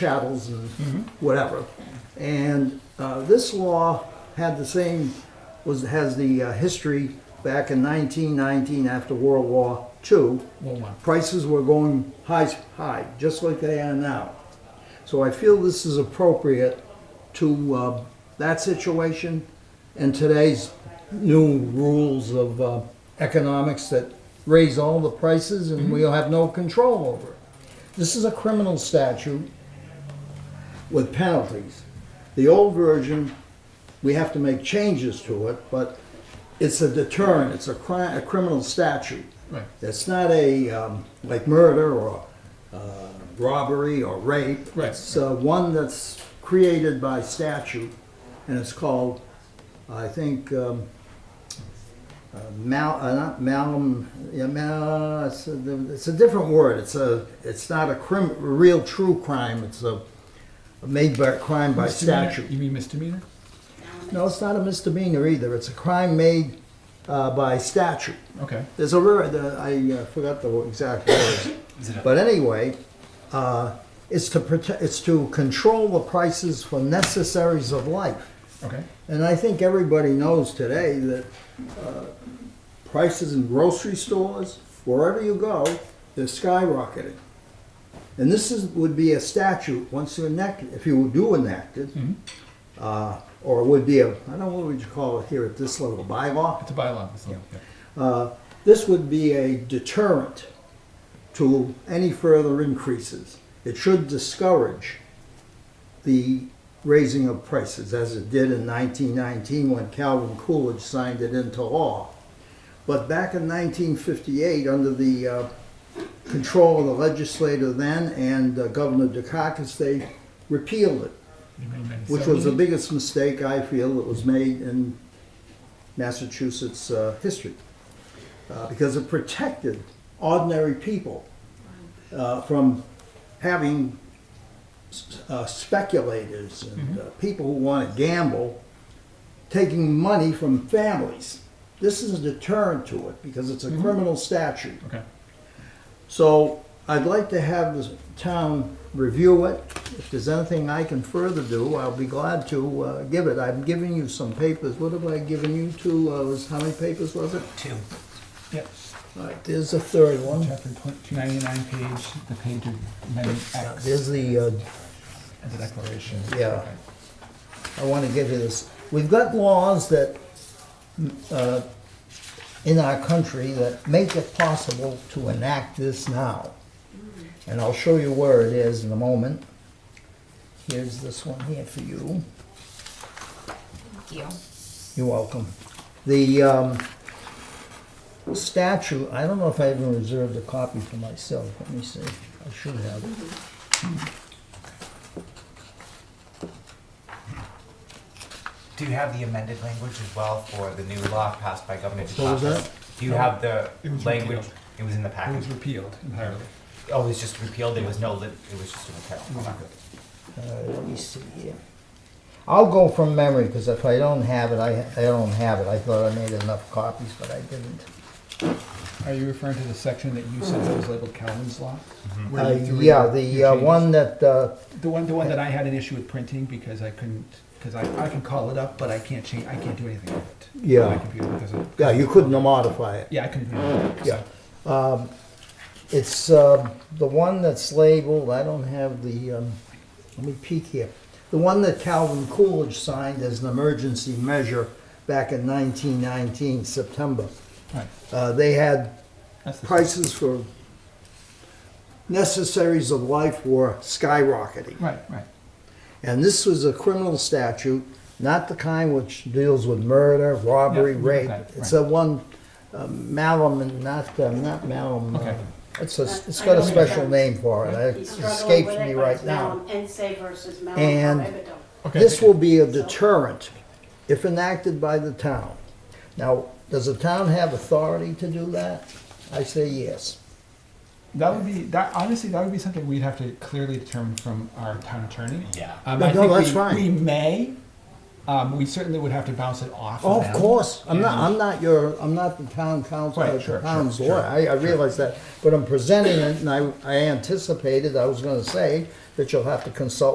chattels and whatever. And uh, this law had the same, was, has the uh, history back in 1919 after World War II. Prices were going high, high, just like they are now. So I feel this is appropriate to uh, that situation and today's new rules of uh, economics that raise all the prices and we'll have no control over it. This is a criminal statute with penalties. The old version, we have to make changes to it, but it's a deterrent, it's a crime, a criminal statute. Right. It's not a, um, like murder or, uh, robbery or rape. Right. It's, uh, one that's created by statute, and it's called, I think, um, uh, mal, uh, not malum, yeah, mal, it's a, it's a different word, it's a, it's not a crim, real true crime, it's a made by, crime by Misdemeanor? statute. You mean misdemeanor? No, it's not a misdemeanor either. It's a crime made uh, by statute. Okay. There's a rare, the, I uh, forgot the exact words. But anyway, uh, it's to protect, it's to control the prices for necessaries of life. Okay. And I think everybody knows today that uh, prices in grocery stores, wherever you go, they're skyrocketing. And this is, would be a statute, once you enact, if you do enact it, uh, or would be a, I don't know, what would you call it here at this level, bylaw? It's a bylaw. It's not- yeah. Uh, This would be a deterrent to any further increases. It should discourage the raising of prices, as it did in 1919 when Calvin Coolidge signed it into law. But back in 1958, under the uh, control of the legislator then and uh, Governor Dukakis, they repealed it, You mean in which was the 70? biggest mistake I feel that was made in Massachusetts uh, history uh, because it protected ordinary people uh, from having s- uh, speculators and uh, people who want to gamble taking money from families. This is a deterrent to it because it's a criminal statute. Okay. So I'd like to have the town review it. If there's anything I can further do, I'll be glad to uh, give it. I'm giving you some papers. What have I given you two? Uh, was, how many papers was it? Two. Yep. All right, there's a third one. Chapter two ninety nine page, the page of amendment X, There's the, uh, the declaration. Yeah. Okay. I want to get to this. We've got laws that, uh, in our country that make it possible to enact this now. And I'll show you where it is in a moment. Here's this one here for you. Thank you. You're welcome. The um, statute, I don't know if I even reserved a copy for myself. Let me see. I should have. Do you have the amended language as well for the new law passed by Governor Dukakis? What was that? Do you have the It was language? repealed. It was in the It package. was repealed entirely. oh, it was just repealed. There was no. Li- it was just a repeal. Okay. Uh, let me see here. I'll go from memory, because if I don't have it, I, I don't have it. I thought I made enough copies, but I didn't. Are you referring to the section that you said that was labeled Calvin's Law? Where Uh, you threw yeah, your- the your uh, changes? one that, uh, The one, the one that I had an issue with printing because I couldn't, because I, I can call it up, but I can't change, I can't do anything with it. on Yeah. My computer because of. yeah, you couldn't modify it. Yeah, I couldn't. do anything with it, Yeah. so. Um, It's um, the one that's labeled, I don't have the, um, let me peek here. The one that Calvin Coolidge signed as an emergency measure back in 1919, September. Right. Uh, They had That's the- prices for necessaries of life were skyrocketing. Right, right. And this was a criminal statute, not the kind which deals with murder, robbery, Yeah, rape. okay, It's right. a one, uh, malum, and not, uh, not malum. uh, Okay. It's a, it's I got a know what special it name for it. It He's struggling escapes with me it, but right it's now. Malum Ense versus Malum And- Prohibito. Okay, This thank you. will be a deterrent if enacted by the town. Now, does the town have authority to do that? I say yes. That would be that. Honestly, that would be something we'd have to clearly determine from our town attorney. Yeah. Um, No, I no, think that's we, fine. We may. Um, we certainly would have to bounce it off. Oh, of them. course, I'm not, And- I'm not your, I'm not the town council, Right, or sure, the sure, town's sure, lawyer, I, I realize that. But I'm presenting it, and I, I anticipated, I was gonna say, that you'll have to consult